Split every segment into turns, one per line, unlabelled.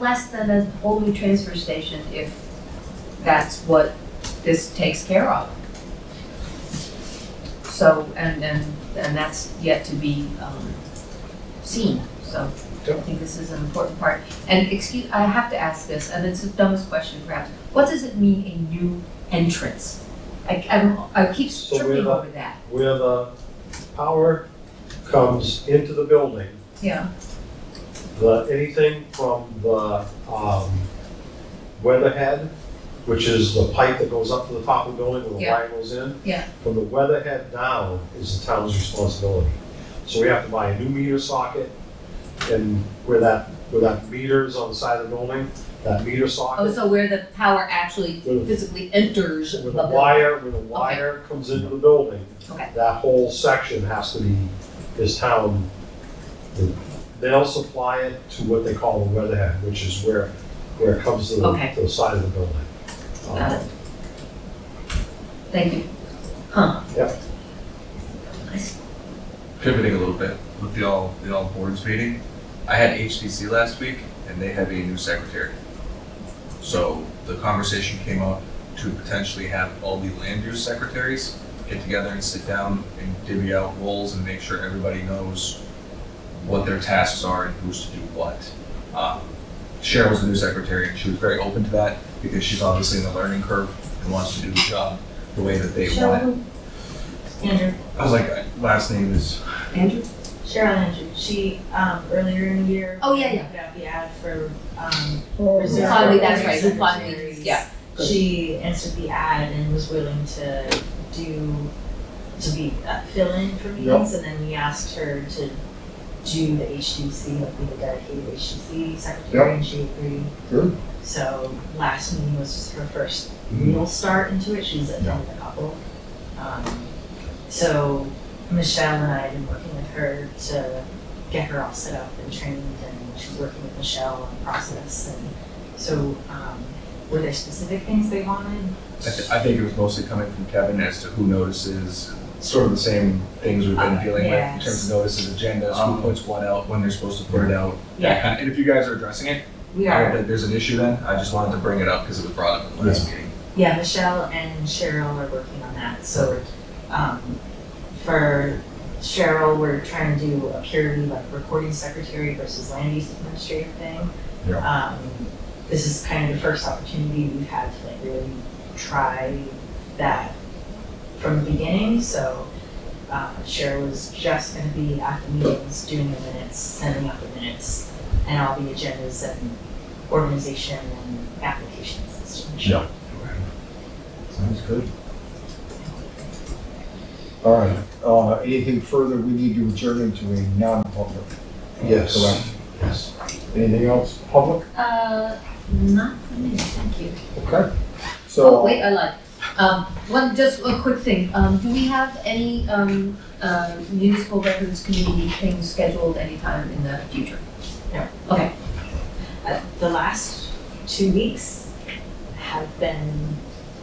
less than a whole new transfer station if that's what this takes care of. So, and, and, and that's yet to be, um, seen, so I think this is an important part. And excuse, I have to ask this, and it's the dumbest question perhaps, what does it mean a new entrance? I, I'm, I keep
So we're
tripping
not-
over that,
Where the power comes into the building,
yeah,
the, anything from the, um, weatherhead, which is the pipe that goes up to the top of the building where the
Yeah.
wire goes in.
Yeah.
From the weatherhead down is the town's responsibility. So we have to buy a new meter socket and where that, where that meter is on the side of the building, that meter socket.
oh, so where the power actually
where the
physically enters the
When the
building.
wire, when the wire comes into the building,
Okay.
that whole section has to be, is town. They'll supply it to what they call the weatherhead, which is where, where it comes to the,
Okay.
to the side of the building. Um,
Got it. Thank you. Huh.
Yep.
pivoting a little bit with the all the all boards meeting, I had HDC last week and they have a new secretary. So the conversation came up to potentially have all the land use secretaries get together and sit down and divvy out roles and make sure everybody knows what their tasks are and who's to do what. Um, Cheryl was the new secretary and she was very open to that because she's obviously in the learning curve and wants to do the job the way that they want it.
Cheryl, Andrew,
I was like, last name is
Andrew?
Cheryl Andrew, she, um, earlier in the year.
Oh, yeah, yeah.
Put out the ad for, um, reserve.
Finally, that's right, who finally,
secretaries.
yeah. good.
She answered the ad and was willing to do, to be, uh, fill in for meetings, and then we asked her to do the HDC, like be the dedicated HDC secretary, and she agreed.
Good.
So last meeting was her first
Mm.
real start into it. She's attended a couple. Um, so Michelle and I have been working with her to get her all set up and trained, and she's working with Michelle on the process. And so, um, were there specific things they wanted?
I, th- I think it was mostly coming from Kevin as to who notices, sort of the same things we've been
Uh,
dealing with in
yes.
terms of notices, agendas, who
Um,
puts what out, when they're supposed to put it out. that
Yeah.
kind- And if you guys are addressing it,
We
I don't
are.
think there's an issue then. I just wanted to bring it up because it was brought up in the last meeting.
Yeah, Michelle and Cheryl are working on that. So, um, for Cheryl, we're trying to do a purely like recording secretary versus land use administrative thing.
Yeah.
Um, this is kind of the first opportunity we've had to like really try that from the beginning, so, uh, Cheryl was just gonna be at the meetings, doing the minutes, sending out the minutes, and all the agendas and organization and applications and stuff.
Yeah. Sounds good. All right, uh, anything further, we need to adjourn into a non-public.
Yes,
Correct.
yes.
Anything else, public?
Uh, not for me, thank you.
Okay.
Oh,
So,
wait, I lied. Um, one, just a quick thing, um, do we have any, um, uh, municipal records committee things scheduled anytime in the future?
the last two weeks have been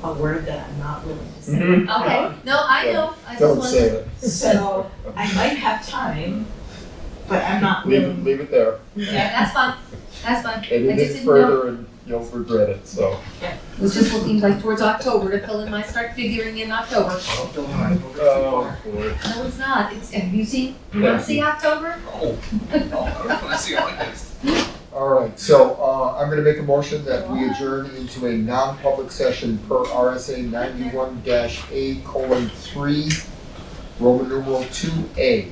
a word that I'm not willing to say.
Mm-hmm.
Mhm.
Okay, no, I know, I just
don't
wanted-
say it,
So I might have time, but I'm not
leave
willing.
it, leave it there,
Yeah, that's fine, that's fine. I just
anything
didn't know,
further and you'll regret it, so.
it was just looking like towards October to fill in my, start figuring in October.
Oh, boy.
No, it's not, it's, have you seen, you wanna see October?
Oh, oh, I don't want to see it like this.
All right, so, uh, I'm gonna make a motion that we adjourn into a non-public session per RSA ninety-one dash A colon three, Roman numeral two A.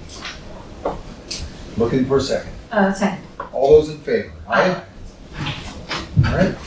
Looking for a second.
Uh, second.
All those in favor? Aye. All right,